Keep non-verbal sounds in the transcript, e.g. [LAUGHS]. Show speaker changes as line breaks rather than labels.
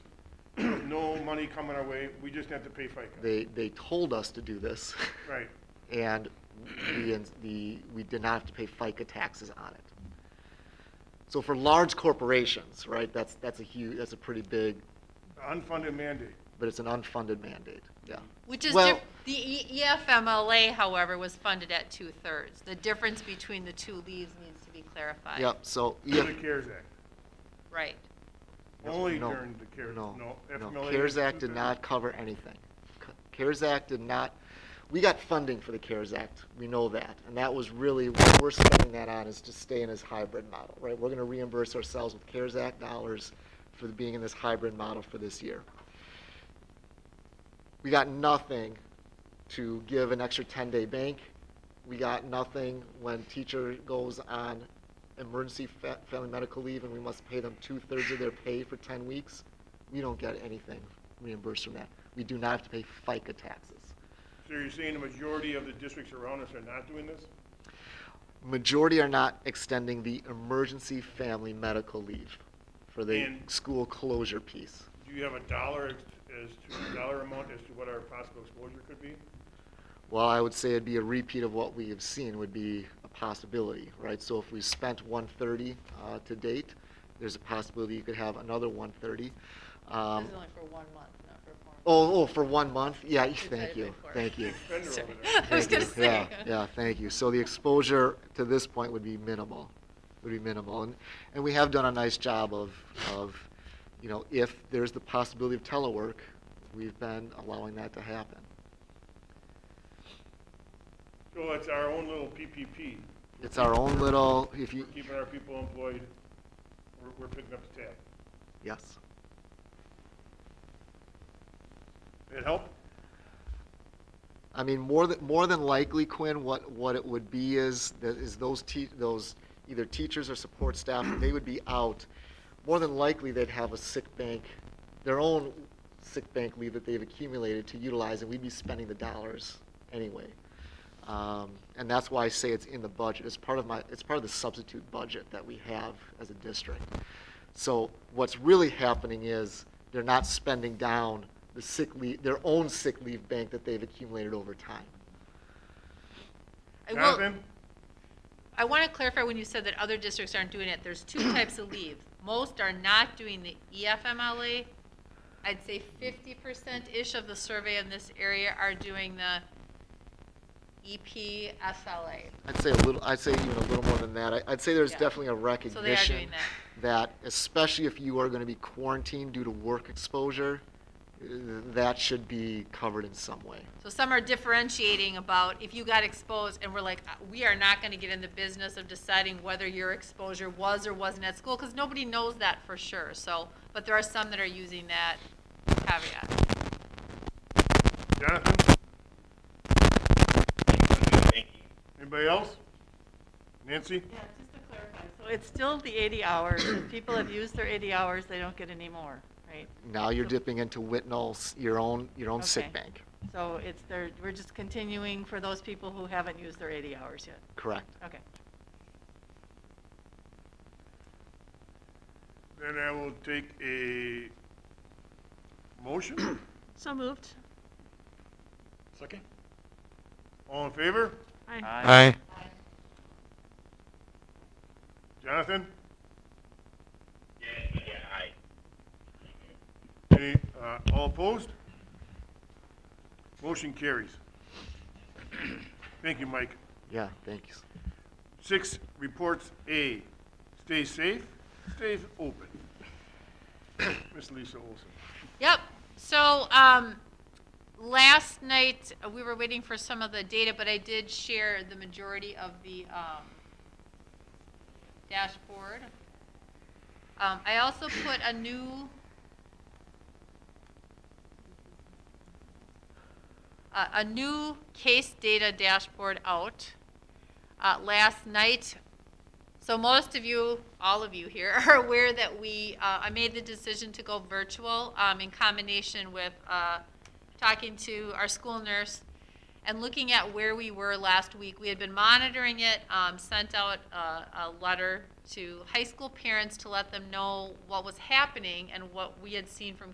[CLEARS THROAT] money coming our way, we just have to pay FICA.
They, they told us to do this.
Right.
And we, the, we did not have to pay FICA taxes on it. So for large corporations, right, that's, that's a huge, that's a pretty big,
Unfunded mandate.
but it's an unfunded mandate, yeah.
Which is,
Well-
diff- the E- EFMLA, however, was funded at two-thirds. The difference between the two leaves needs to be clarified.
Yep, so,
Through
yeah,
the CARES Act.
Right.
Only
No,
during the CARES,
no,
no.
no,
FMLA
CARES Act did
two-thirds.
not cover anything. C- CARES Act did not, we got funding for the CARES Act, we know that, and that was really, what we're spending that on is to stay in this hybrid model, right? We're gonna reimburse ourselves with CARES Act dollars for being in this hybrid model for this year. We got nothing to give an extra ten-day bank. We got nothing when teacher goes on emergency fa- family medical leave and we must pay them two-thirds of their pay for ten weeks. We don't get anything reimbursed from that. We do not have to pay FICA taxes.
So you're saying the majority of the districts around us are not doing this?
Majority are not extending the emergency family medical leave for the
And-
school closure piece.
Do you have a dollar as to, dollar amount as to what our possible exposure could be?
Well, I would say it'd be a repeat of what we have seen would be a possibility, right? So if we spent one thirty, uh, to date, there's a possibility you could have another one thirty. Um,
This is only for one month, not for four.
oh, oh, for one month? Yeah, [LAUGHS]
said
thank
it
you,
before.
thank
[LAUGHS]
you.
Fender over
Sorry.
there.
I was
Thank
gonna
you.
say.
Yeah, yeah, thank you. So the exposure to this point would be minimal, would be minimal. And, and we have done a nice job of, of, you know, if there's the possibility of telework, we've been allowing that to happen.
So it's our own little PPP.
It's our own little, if
We're
you,
keeping our people employed. We're, we're picking up the tab.
yes.
It help?
I mean, more than, more than likely, Quinn, what, what it would be is, that is those te, those, either teachers or support staff, they would be out. More than likely, they'd have a sick bank, their own sick bank leave that they've accumulated to utilize, and we'd be spending the dollars anyway. Um, and that's why I say it's in the budget, it's part of my, it's part of the substitute budget that we have as a district. So what's really happening is they're not spending down the sick leave, their own sick leave bank that they've accumulated over time.
I will-
Jonathan?
I want to clarify when you said that other districts aren't doing it, there's two types of leave. Most are not doing the E EFMLA. I'd say fifty percent-ish of the survey in this area are doing the E EPSLA.
I'd say a little, I'd say even a little more than that. I- I'd say there's
Yeah.
definitely a
So they are
recognition
doing that.
that especially if you are going to be quarantined due to work exposure, uh, that should be covered in some way.
So some are differentiating about if you got exposed and we're like, uh, we are not gonna get in the business of deciding whether your exposure was or wasn't at school, cause nobody knows that for sure, so, but there are some that are using that caveat.
Jonathan?
Thank you.
Anybody else? Nancy?
Yeah, just to clarify, so it's still the 80 hours, if people have used their 80 hours, they don't get any more, right?
Now you're dipping into Whitnall's, your own, your own sick
Okay.
bank,
So it's there, we're just continuing for those people who haven't used their 80 hours yet.
correct?
Okay.
Then I will take a motion.
So moved.
[CLEARS THROAT] Second?
All in favor?
Aye.
Jonathan?
Yeah, yeah, aye.
Any, uh, all opposed? Motion carries. [CLEARS THROAT] Thank you, Mike.
Yeah, thanks.
Six, reports A, stay safe, stay open. [COUGHS] Miss Lisa Olson.
Yep, so, um, last night, uh, we were waiting for some of the data, but I did share the majority of the, um, dashboard. Um, I also put a new a, a new case data dashboard out uh, last night. So most of you, all of you here, [LAUGHS] are aware that we, uh, I made the decision to go virtual um, in combination with uh, talking to our school nurse and looking at where we were last week. We had been monitoring it, um, sent out uh, a, a letter to high school parents to let them know what was happening and what we had seen from